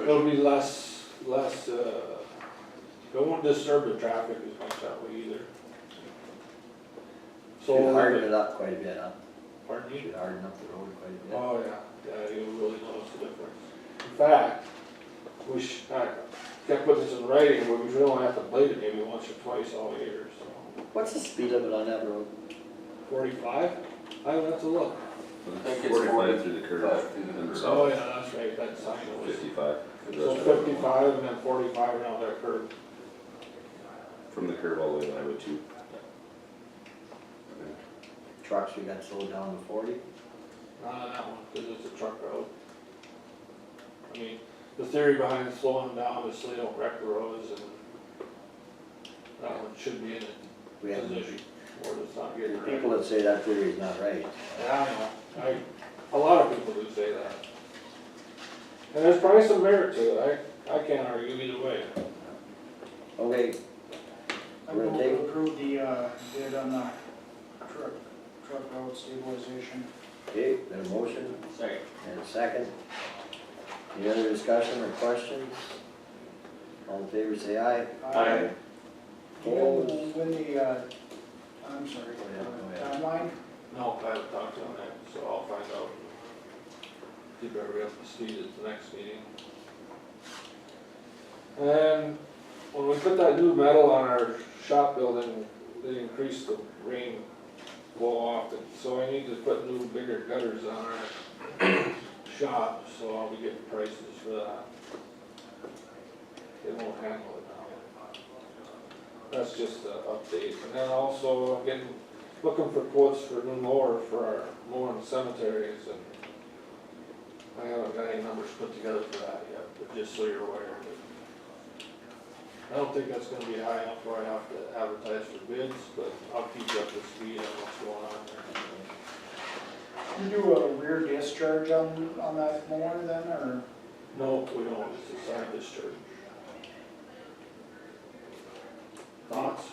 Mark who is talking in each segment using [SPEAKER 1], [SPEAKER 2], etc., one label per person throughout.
[SPEAKER 1] It'll be less, less, uh, it won't disturb the traffic as much that way either. So,
[SPEAKER 2] Should harden it up quite a bit, huh?
[SPEAKER 1] pardon you?
[SPEAKER 2] Should harden up the road quite a bit.
[SPEAKER 1] Oh, yeah, yeah, you'll really notice the difference. In fact, we should, I gotta put this in writing, but we should only have to blade it maybe once or twice all year, so.
[SPEAKER 2] What's the speed limit on that road?
[SPEAKER 1] Forty-five? I would have to look.
[SPEAKER 3] think it's
[SPEAKER 4] Forty-five through the curve
[SPEAKER 3] Forty-five through the
[SPEAKER 4] and
[SPEAKER 3] curve.
[SPEAKER 1] Oh,
[SPEAKER 4] south,
[SPEAKER 1] yeah, that's right, that's something that was,
[SPEAKER 4] fifty-five.
[SPEAKER 1] so fifty-five and then forty-five around that curve.
[SPEAKER 4] From the curve all the way to Highway two.
[SPEAKER 2] Trucks, we got slowed down to forty?
[SPEAKER 1] Not on that one, cause it's a truck road. I mean, the theory behind slowing down is so they don't wreck the roads and that one should be in a
[SPEAKER 2] We have,
[SPEAKER 1] position where it's not getting
[SPEAKER 2] there's
[SPEAKER 1] wrecked.
[SPEAKER 2] people that say that theory is not right.
[SPEAKER 1] Yeah, I know, I, a lot of people do say that. And there's probably some merit to it, I, I can't argue either way.
[SPEAKER 2] Okay,
[SPEAKER 5] I
[SPEAKER 2] We're
[SPEAKER 5] move
[SPEAKER 2] gonna take-
[SPEAKER 5] to approve the uh, bid on the truck, truck road stabilization.
[SPEAKER 2] okay, then a motion
[SPEAKER 1] Second.
[SPEAKER 2] and a second. Any other discussion or questions? All in favor, say aye.
[SPEAKER 5] Uh, Do you know
[SPEAKER 2] Opposed?
[SPEAKER 5] when the, uh, I'm sorry,
[SPEAKER 2] Yeah, go
[SPEAKER 5] uh,
[SPEAKER 2] ahead.
[SPEAKER 5] timeline?
[SPEAKER 1] No, I haven't talked to him yet, so I'll find out. Keep everybody up to speed at the next meeting. And when we put that new metal on our shop building, they increased the rain blow off, and so I need to put new bigger gutters on our shop, so I'll be getting prices for that. They won't handle it now. That's just an update, and then also getting looking for quotes for new mower for our mowing cemeteries and I haven't got any numbers put together for that yet, but just so you're aware. I don't think that's gonna be high enough where I have to advertise for bids, but I'll keep you up to speed on what's going on there.
[SPEAKER 5] You do a rear discharge on, on that mower then, or?
[SPEAKER 1] No, we don't, it's a side discharge. Thoughts?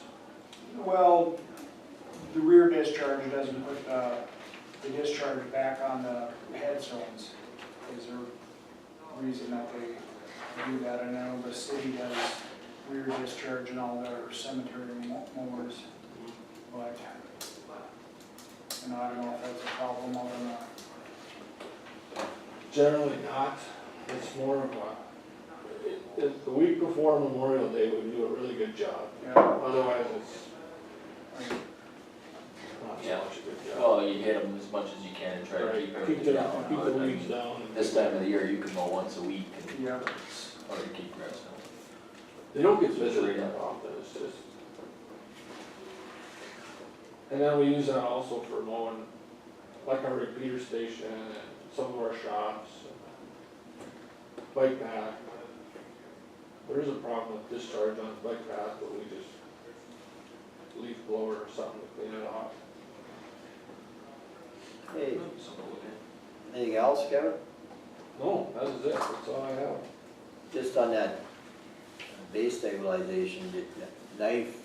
[SPEAKER 5] Well, the rear discharge doesn't put the, the discharge back on the headstones. Is there a reason that they do that? I know the city does rear discharge in all their cemetery mo- mowers, but, and I don't know if that's a problem or not.
[SPEAKER 1] Generally not, it's more of a, it- it- the week before Memorial Day, we do a really good job.
[SPEAKER 5] Yeah,
[SPEAKER 1] Otherwise, it's
[SPEAKER 5] I-
[SPEAKER 1] not so
[SPEAKER 3] Yeah.
[SPEAKER 1] much a good job.
[SPEAKER 3] Well, you hit them as much as you can and try to keep
[SPEAKER 1] Right, keep
[SPEAKER 3] everything
[SPEAKER 1] the,
[SPEAKER 3] down.
[SPEAKER 1] keep the
[SPEAKER 3] but I
[SPEAKER 1] weeds
[SPEAKER 3] mean,
[SPEAKER 1] down. and-
[SPEAKER 3] This time of the year, you can mow once a week and
[SPEAKER 5] yeah.
[SPEAKER 3] it's hard to keep grass down.
[SPEAKER 1] They don't get visited that often, it's just. And then we use that also for mowing, like our repeater station and some of our shops. and Bike path. There is a problem with discharge on the bike path, but we just leaf blower or something to clean it off.
[SPEAKER 2] Hey,
[SPEAKER 3] Something to look at.
[SPEAKER 2] anything else, Kevin?
[SPEAKER 1] No, that is it, that's all I have.
[SPEAKER 2] Just on that base stabilization, the the knife,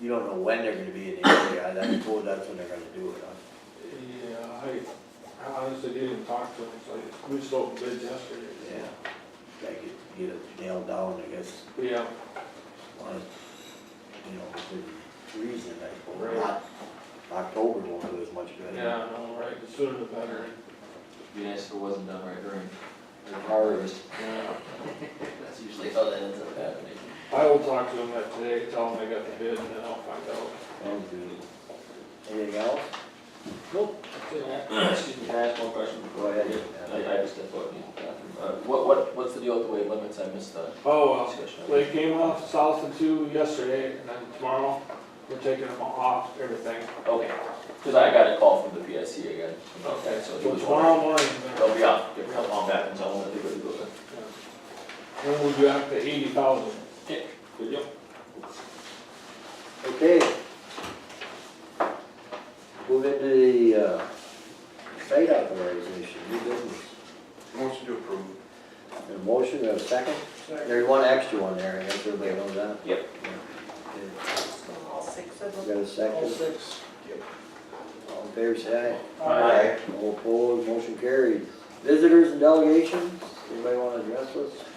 [SPEAKER 2] you don't know when they're gonna be in the area, I suppose that's when they're gonna do it, huh?
[SPEAKER 1] Yeah, I, I honestly didn't talk to him, so I- we just opened bids yesterday.
[SPEAKER 2] Yeah, gotta get, get it nailed down, I guess,
[SPEAKER 1] Yeah,
[SPEAKER 2] on, a- you know, within reason, I
[SPEAKER 1] Right.
[SPEAKER 2] suppose, not, October won't do as much good.
[SPEAKER 1] yeah, no, right, the sooner the better.
[SPEAKER 3] Be nice if it wasn't done right during the
[SPEAKER 2] Harvest.
[SPEAKER 3] harvest.
[SPEAKER 1] Yeah.
[SPEAKER 3] That's usually how that ends up happening.
[SPEAKER 1] I will talk to him that today, tell him I got the bid, and then I'll find out.
[SPEAKER 2] Sounds good. Anything else?
[SPEAKER 1] Nope.
[SPEAKER 3] Excuse me, can I ask one question?
[SPEAKER 2] Go ahead.
[SPEAKER 3] I, I just stepped out of the bathroom. Uh, what, what, what's the deal with the weight limits? I missed that
[SPEAKER 1] Oh,
[SPEAKER 3] discussion.
[SPEAKER 1] well, they came off south of two yesterday, and then tomorrow, we're taking them off everything.
[SPEAKER 3] Okay, cause I got a call from the PSC again. about that, So he
[SPEAKER 1] So
[SPEAKER 3] was
[SPEAKER 1] tomorrow
[SPEAKER 3] wondering.
[SPEAKER 1] morning,
[SPEAKER 3] They'll be off, they're coming on back and so I wanted to go to go then.
[SPEAKER 1] then we'll be back to eighty thousand.
[SPEAKER 3] Okay, good deal.
[SPEAKER 2] Okay. Move into the, uh, site authorization, new business.
[SPEAKER 4] Motion to approve.
[SPEAKER 2] A motion, we have a second?
[SPEAKER 5] Second.
[SPEAKER 2] There's one extra one there, I guess everybody knows that.
[SPEAKER 3] Yep.
[SPEAKER 2] Okay,
[SPEAKER 6] All six of them.
[SPEAKER 2] We got a
[SPEAKER 5] All
[SPEAKER 2] second,
[SPEAKER 5] six.
[SPEAKER 2] all in favor, say aye.
[SPEAKER 3] Aye.
[SPEAKER 2] All opposed, motion carried. Visitors and delegations, anybody wanna address us?